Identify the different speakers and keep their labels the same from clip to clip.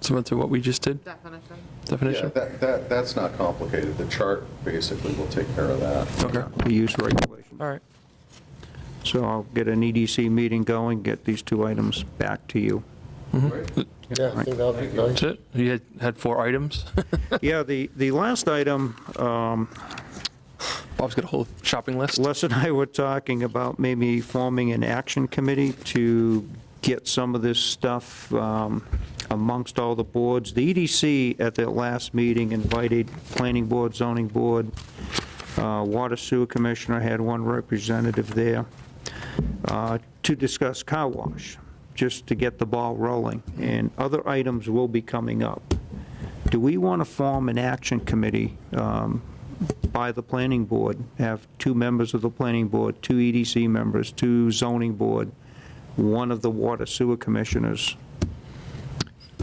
Speaker 1: similar to what we just did,
Speaker 2: definition.
Speaker 1: definition?
Speaker 3: Yeah, that, that, that's not complicated. The chart basically will take care of that.
Speaker 1: Okay,
Speaker 4: the use regulation.
Speaker 1: all right.
Speaker 4: So I'll get an EDC meeting going, get these two items back to you.
Speaker 3: Right?
Speaker 5: Yeah, I think that would be nice.
Speaker 1: Mm-hmm. That's it? You had, had four items?
Speaker 4: Yeah, the, the last item, um,
Speaker 1: Bob's got a whole shopping list.
Speaker 4: Les and I were talking about maybe forming an action committee to get some of this stuff um, amongst all the boards. The EDC at their last meeting invited Planning Board, Zoning Board, uh, Water Sewer Commissioner had one representative there uh, to discuss car wash, just to get the ball rolling. And other items will be coming up. Do we want to form an action committee um, by the planning board? Have two members of the planning board, two EDC members, two zoning board, one of the water sewer commissioners,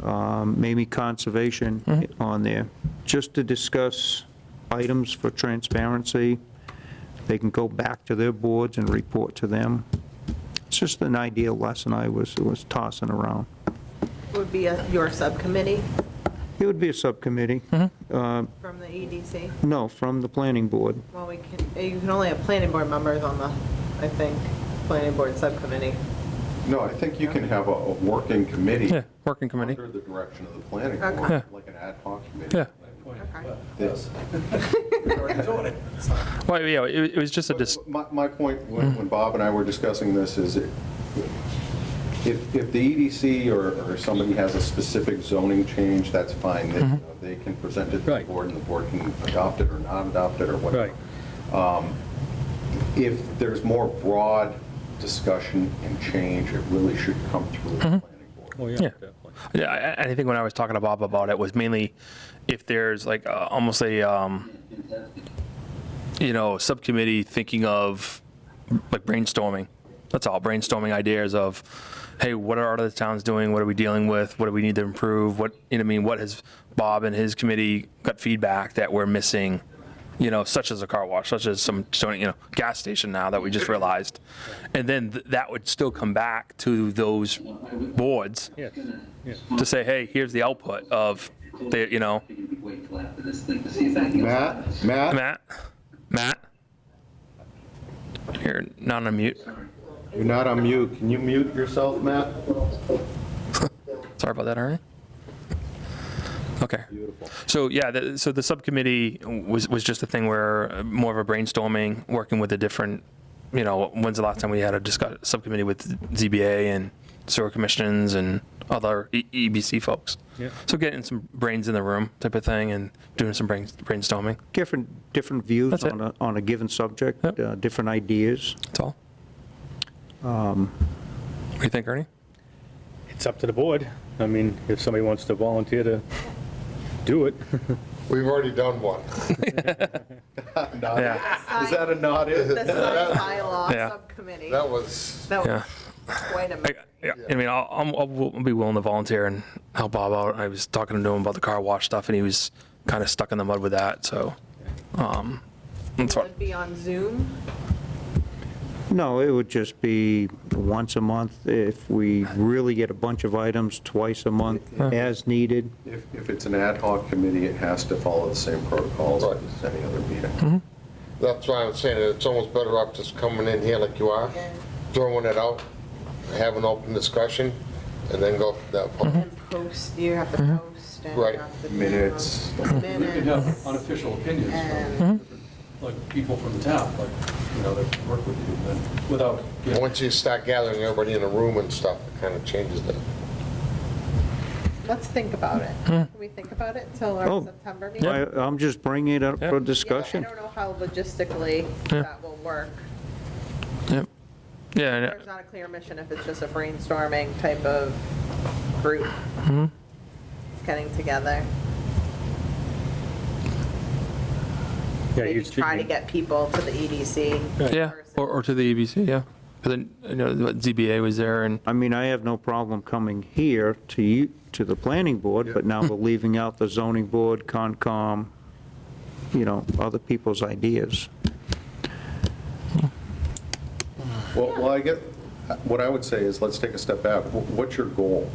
Speaker 4: um, maybe conservation on there, just to discuss items for transparency? They can go back to their boards and report to them. It's just an idea lesson I was, was tossing around.
Speaker 2: Would be a- your subcommittee
Speaker 4: It would be a subcommittee. Uh,
Speaker 2: from the EDC.
Speaker 4: No, from the planning board.
Speaker 2: Well, we can, eh, you can only have planning board members on the, I think, planning board subcommittee.
Speaker 3: No, I think you can have a, a working committee
Speaker 1: Yeah, working committee.
Speaker 3: under the direction of the planning
Speaker 2: Okay.
Speaker 3: board,
Speaker 1: Yeah.
Speaker 3: like an ad hoc committee.
Speaker 1: Yeah.
Speaker 2: Okay.
Speaker 3: This-
Speaker 1: Well, yeah, it it was just a, dis-
Speaker 3: My, my point, when, when Bob and I were discussing this, is it- if, if the EDC or, or somebody has a specific zoning change, that's fine. They, you know, they can present it to the
Speaker 6: Mm-hmm. Right.
Speaker 3: board, and the board can adopt it or not adopt it or whatever. Um,
Speaker 6: Right.
Speaker 3: If there's more broad discussion and change, it really should come through the planning board.
Speaker 6: Oh, yeah,
Speaker 1: Yeah.
Speaker 6: definitely.
Speaker 1: yeah, I- I I think when I was talking to Bob about it was mainly if there's like uh, almost a, um, you know, subcommittee thinking of like brainstorming. That's all, brainstorming ideas of, hey, what are other towns doing? What are we dealing with? What do we need to improve? What, you know, what I mean, what has Bob and his committee got feedback that we're missing? You know, such as a car wash, such as some, you know, gas station now that we just realized. And then th- that would still come back to those boards
Speaker 6: Yes, yes.
Speaker 1: to say, hey, here's the output of, the, you know,
Speaker 7: Matt, Matt?
Speaker 1: Matt, Matt. You're not on mute.
Speaker 7: You're not on mute. Can you mute yourself, Matt?
Speaker 1: Sorry about that, Ernie. Okay. Beautiful. So yeah, the, so the subcommittee was was just a thing where uh, more of a brainstorming, working with the different, you know, when's the last time we had a discuss, subcommittee with ZBA and sewer commissions and other E- EBC folks.
Speaker 6: Yeah.
Speaker 1: So getting some brains in the room type of thing and doing some brain, brainstorming.
Speaker 4: different, different views
Speaker 1: That's it.
Speaker 4: on a, on a given subject,
Speaker 1: Yep.
Speaker 4: uh, different ideas. Um,
Speaker 1: That's all. What do you think, Ernie?
Speaker 6: It's up to the board. I mean, if somebody wants to volunteer to do it.
Speaker 5: We've already done one.
Speaker 3: Not-
Speaker 1: Yeah.
Speaker 3: Is that a nod?
Speaker 2: The site bylaw
Speaker 1: Yeah.
Speaker 2: subcommittee.
Speaker 5: That was,
Speaker 2: That
Speaker 1: Yeah.
Speaker 2: was quite a
Speaker 1: I,
Speaker 2: minute.
Speaker 1: yeah, I mean, I'll, I'm- I'll, will be willing to volunteer and help Bob out. I was talking to him about the car wash stuff, and he was kind of stuck in the mud with that. So, um, that's what,
Speaker 2: Would be on Zoom.
Speaker 4: No, it would just be once a month if we really get a bunch of items, twice a month as needed.
Speaker 3: If, if it's an ad hoc committee, it has to follow the same protocols as any other meeting.
Speaker 5: that's why I'm saying that it's almost better off just coming in here like you are, throwing it out, have an open discussion, and then go from that
Speaker 1: Mm-hmm.
Speaker 5: point.
Speaker 2: And post, you have to post and. you
Speaker 5: Right.
Speaker 2: have to do, um,
Speaker 3: Minutes,
Speaker 8: We could
Speaker 2: Minutes.
Speaker 8: have unofficial opinions
Speaker 2: And-
Speaker 8: from,
Speaker 1: Mm-hmm.
Speaker 8: different, like, people from the town, like, you know, that work with you, but without, getting-
Speaker 5: Once you start gathering everybody in a room and stuff, it kind of changes that.
Speaker 1: Mm-hmm.
Speaker 2: Let's think about it. Can we think about it until our
Speaker 4: Oh.
Speaker 2: September meeting?
Speaker 4: I, I'm just bringing it up
Speaker 1: Yeah.
Speaker 4: for
Speaker 2: Yeah, I
Speaker 4: discussion.
Speaker 2: don't know how logistically
Speaker 1: Yeah.
Speaker 2: that will work.
Speaker 1: yep. Yeah, and,
Speaker 2: There's not a clear mission if it's just a brainstorming type of group
Speaker 1: Mm-hmm.
Speaker 2: getting together.
Speaker 6: Yeah,
Speaker 2: Maybe
Speaker 6: you should
Speaker 2: try to
Speaker 6: be-
Speaker 2: get people to the E EDC.
Speaker 1: yeah,
Speaker 2: person.
Speaker 1: or, or to the EBC, yeah. Because you know what ZBA was there, and
Speaker 4: I mean, I have no problem coming here to you, to the planning board, but now we're leaving out the zoning board, Concom, you know, other people's ideas.
Speaker 3: Well, well, I get, what I would say is, let's take a step back. Wh- What's your goal?